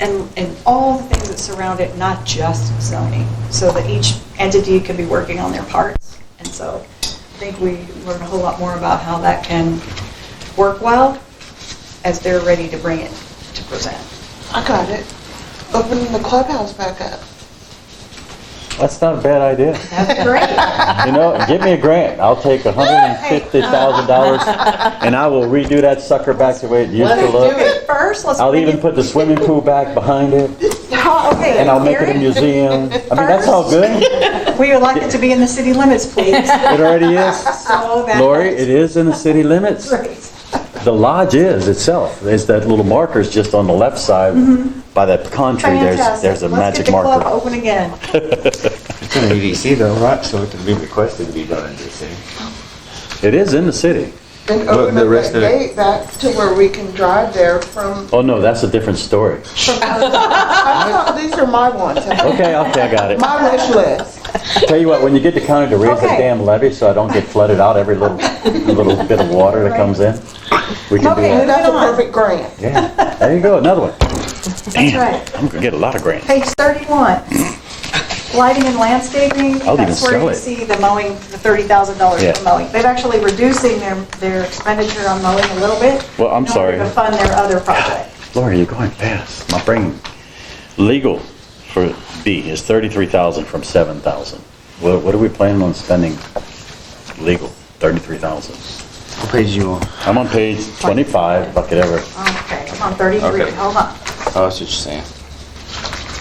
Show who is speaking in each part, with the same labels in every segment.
Speaker 1: and, and all the things that surround it, not just zoning, so that each entity can be working on their parts. And so I think we learn a whole lot more about how that can work well as they're ready to bring it to present.
Speaker 2: I got it. Opening the clubhouse back up.
Speaker 3: That's not a bad idea.
Speaker 1: That's great.
Speaker 3: You know, give me a grant. I'll take $150,000 and I will redo that sucker back the way it used to
Speaker 1: Do
Speaker 3: look.
Speaker 1: it first, let's.
Speaker 3: I'll
Speaker 1: bring
Speaker 3: even
Speaker 1: it-
Speaker 3: put the swimming pool back behind it
Speaker 1: Oh, Okay.
Speaker 3: and I'll make it a
Speaker 1: Gary?
Speaker 3: museum. I mean, that's all good. It
Speaker 1: We would like it to be in the city limits, please.
Speaker 3: already is.
Speaker 1: So that-
Speaker 3: Lori, it is in the city limits.
Speaker 1: Great.
Speaker 3: The lodge is itself. There's that little marker's just on the left side by that pine tree. There's,
Speaker 1: Mm-hmm. Fantastic.
Speaker 3: there's a magic
Speaker 1: Let's get the
Speaker 3: marker.
Speaker 1: club open again.
Speaker 4: It's an EDC though, right? So it can be requested to be done in DC.
Speaker 3: It is in the city.
Speaker 2: And
Speaker 4: Well,
Speaker 2: open
Speaker 4: the
Speaker 2: up
Speaker 4: rest
Speaker 2: that
Speaker 4: of it-
Speaker 2: gate back to where we can drive there from,
Speaker 3: Oh, no, that's a different story.
Speaker 2: I thought these are my ones.
Speaker 3: Okay, okay, I got it.
Speaker 2: My wish list.
Speaker 3: Tell you what, when you get to county to raise
Speaker 1: Okay.
Speaker 3: that damn levy so I don't get flooded out every little, little bit of water that comes in, we can do
Speaker 1: Okay.
Speaker 3: that.
Speaker 2: That's a perfect grant.
Speaker 3: Yeah, there you go, another one.
Speaker 1: That's right.
Speaker 3: I'm gonna get a lot of grants.
Speaker 1: Page 31, lighting and landscaping.
Speaker 3: I'll even
Speaker 1: That's where
Speaker 3: sell
Speaker 1: you
Speaker 3: it.
Speaker 1: see the mowing, the $30,000
Speaker 3: Yeah.
Speaker 1: for mowing. They're actually reducing their, their expenditure on mowing a little bit.
Speaker 3: Well, I'm
Speaker 1: In
Speaker 3: sorry.
Speaker 1: order to fund their other project.
Speaker 3: Laura, you're going fast. My brain, legal for B is 33,000 from 7,000. What, what are we planning on spending legal, 33,000?
Speaker 4: What page you on?
Speaker 3: I'm on page 25, bucket ever.
Speaker 1: Okay, I'm on 33,
Speaker 4: Okay.
Speaker 1: hold on.
Speaker 4: Oh, that's what you're saying.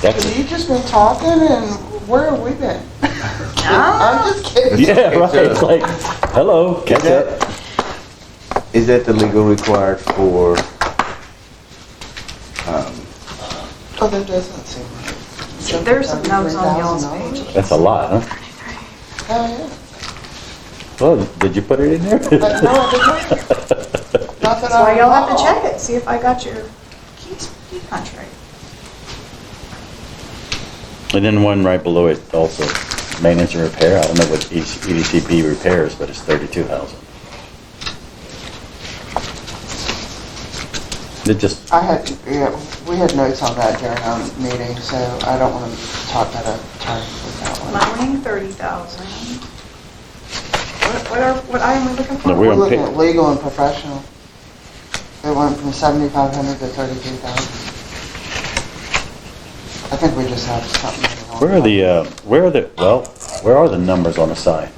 Speaker 3: That's
Speaker 2: Have
Speaker 3: it.
Speaker 2: you just been talking and where have we been?
Speaker 1: Ah,
Speaker 2: I'm just kidding.
Speaker 3: Yeah, right,
Speaker 4: It's,
Speaker 3: it's
Speaker 4: uh,
Speaker 3: like, hello, catch
Speaker 4: that-
Speaker 3: up.
Speaker 4: Is that the legal required for, um,
Speaker 2: Oh, that doesn't seem right.
Speaker 1: See, There's some notes on y'all's page.
Speaker 2: $33,000.
Speaker 3: That's a lot, huh?
Speaker 2: Oh,
Speaker 3: Well, did you put it in there?
Speaker 2: yeah. But no, I didn't. Not that
Speaker 1: That's why
Speaker 2: I
Speaker 1: y'all have to
Speaker 2: recall.
Speaker 1: check it, see if I got your key key contract.
Speaker 3: And then one right below it also, maintenance and repair, I don't know what E EDCP repairs, but it's thirty-two thousand. It just,
Speaker 2: I had, yeah, we had notes on that during our meeting, so I don't want to talk out of turn with that one.
Speaker 1: Mowing, 30,000. What what are, what item are we looking for?
Speaker 3: No,
Speaker 2: We're
Speaker 3: on
Speaker 2: looking
Speaker 3: pa-
Speaker 2: at legal and professional. It went from 7,500 to 33,000. I think we just have something.
Speaker 3: where are the, uh, where are the, well, where are the numbers on the side?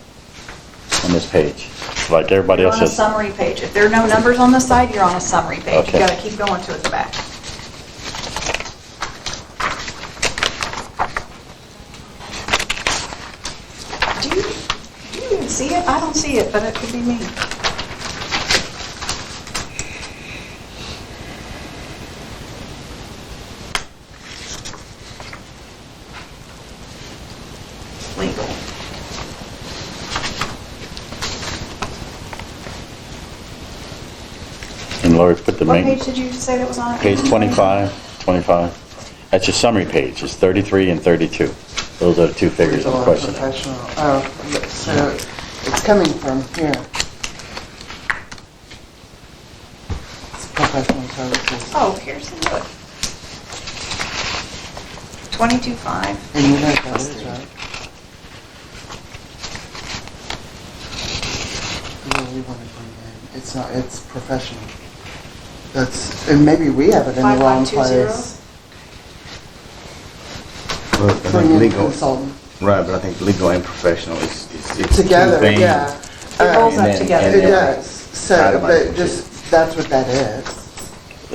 Speaker 3: On this page? Like everybody
Speaker 1: You're
Speaker 3: else
Speaker 1: on a
Speaker 3: says.
Speaker 1: summary page. If there are no numbers on the side, you're on a summary page. You
Speaker 3: Okay.
Speaker 1: gotta keep going to the back. Do you, do you even see it? I don't see it, but it could be me. Legal.
Speaker 3: And Lori put the
Speaker 1: What page
Speaker 3: maintenance,
Speaker 1: did you say that was on? it?
Speaker 3: page twenty-five, twenty-five, that's your summary page, it's thirty-three and thirty-two. Those are the two figures
Speaker 2: Legal
Speaker 3: I'm
Speaker 2: and
Speaker 3: questioning.
Speaker 2: professional. Oh, so it's coming from here. Professional services.
Speaker 1: Oh, here's the book. 22.5.
Speaker 2: And you know what that is, right? Yeah, we want to bring in, it's not, it's professional. That's, and maybe we have it in the wrong
Speaker 1: 5520?
Speaker 2: place.
Speaker 4: well, I think
Speaker 2: Bring in
Speaker 4: legal,
Speaker 2: consultant.
Speaker 4: right, but I think legal and professional is, is. it's two
Speaker 2: Together,
Speaker 4: things.
Speaker 2: yeah.
Speaker 1: It rolls
Speaker 4: And
Speaker 1: up
Speaker 4: then-
Speaker 1: together.
Speaker 2: It
Speaker 4: and then-
Speaker 2: does, so,
Speaker 4: Itemized
Speaker 2: but just, that's what that is.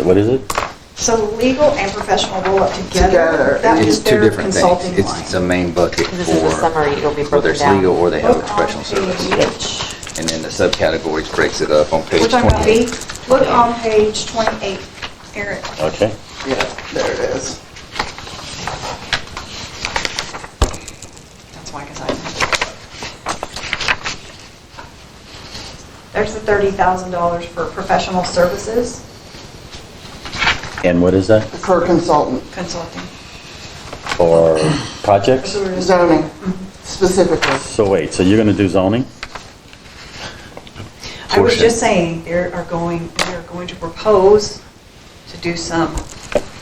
Speaker 3: What is it?
Speaker 1: So legal and professional roll up together.
Speaker 2: Together.
Speaker 1: That
Speaker 4: It's
Speaker 1: was
Speaker 4: two
Speaker 1: their
Speaker 4: different things.
Speaker 1: consulting
Speaker 4: It's, it's
Speaker 1: line.
Speaker 4: a main bucket
Speaker 5: Because this is the
Speaker 4: for
Speaker 5: summary, it'll be
Speaker 4: whether
Speaker 5: broken
Speaker 4: it's
Speaker 5: down.
Speaker 4: legal or they have a
Speaker 1: Look
Speaker 4: professional
Speaker 1: on
Speaker 4: service.
Speaker 1: page,
Speaker 4: And then the subcategories breaks it up on page
Speaker 1: which I'm gonna be,
Speaker 4: twenty-eight.
Speaker 1: look on page 28, Eric.
Speaker 3: Okay.
Speaker 2: Yeah, there it is.
Speaker 1: That's why, 'cause I. There's the $30,000 for professional services
Speaker 3: And what is that?
Speaker 2: For consultant,
Speaker 1: consulting.
Speaker 3: For projects?
Speaker 2: zoning
Speaker 1: Mm-hmm.
Speaker 2: specifically.
Speaker 3: So wait, so you're gonna do zoning?
Speaker 1: I was
Speaker 4: portion.
Speaker 1: just saying, they are going, they are going to propose to do some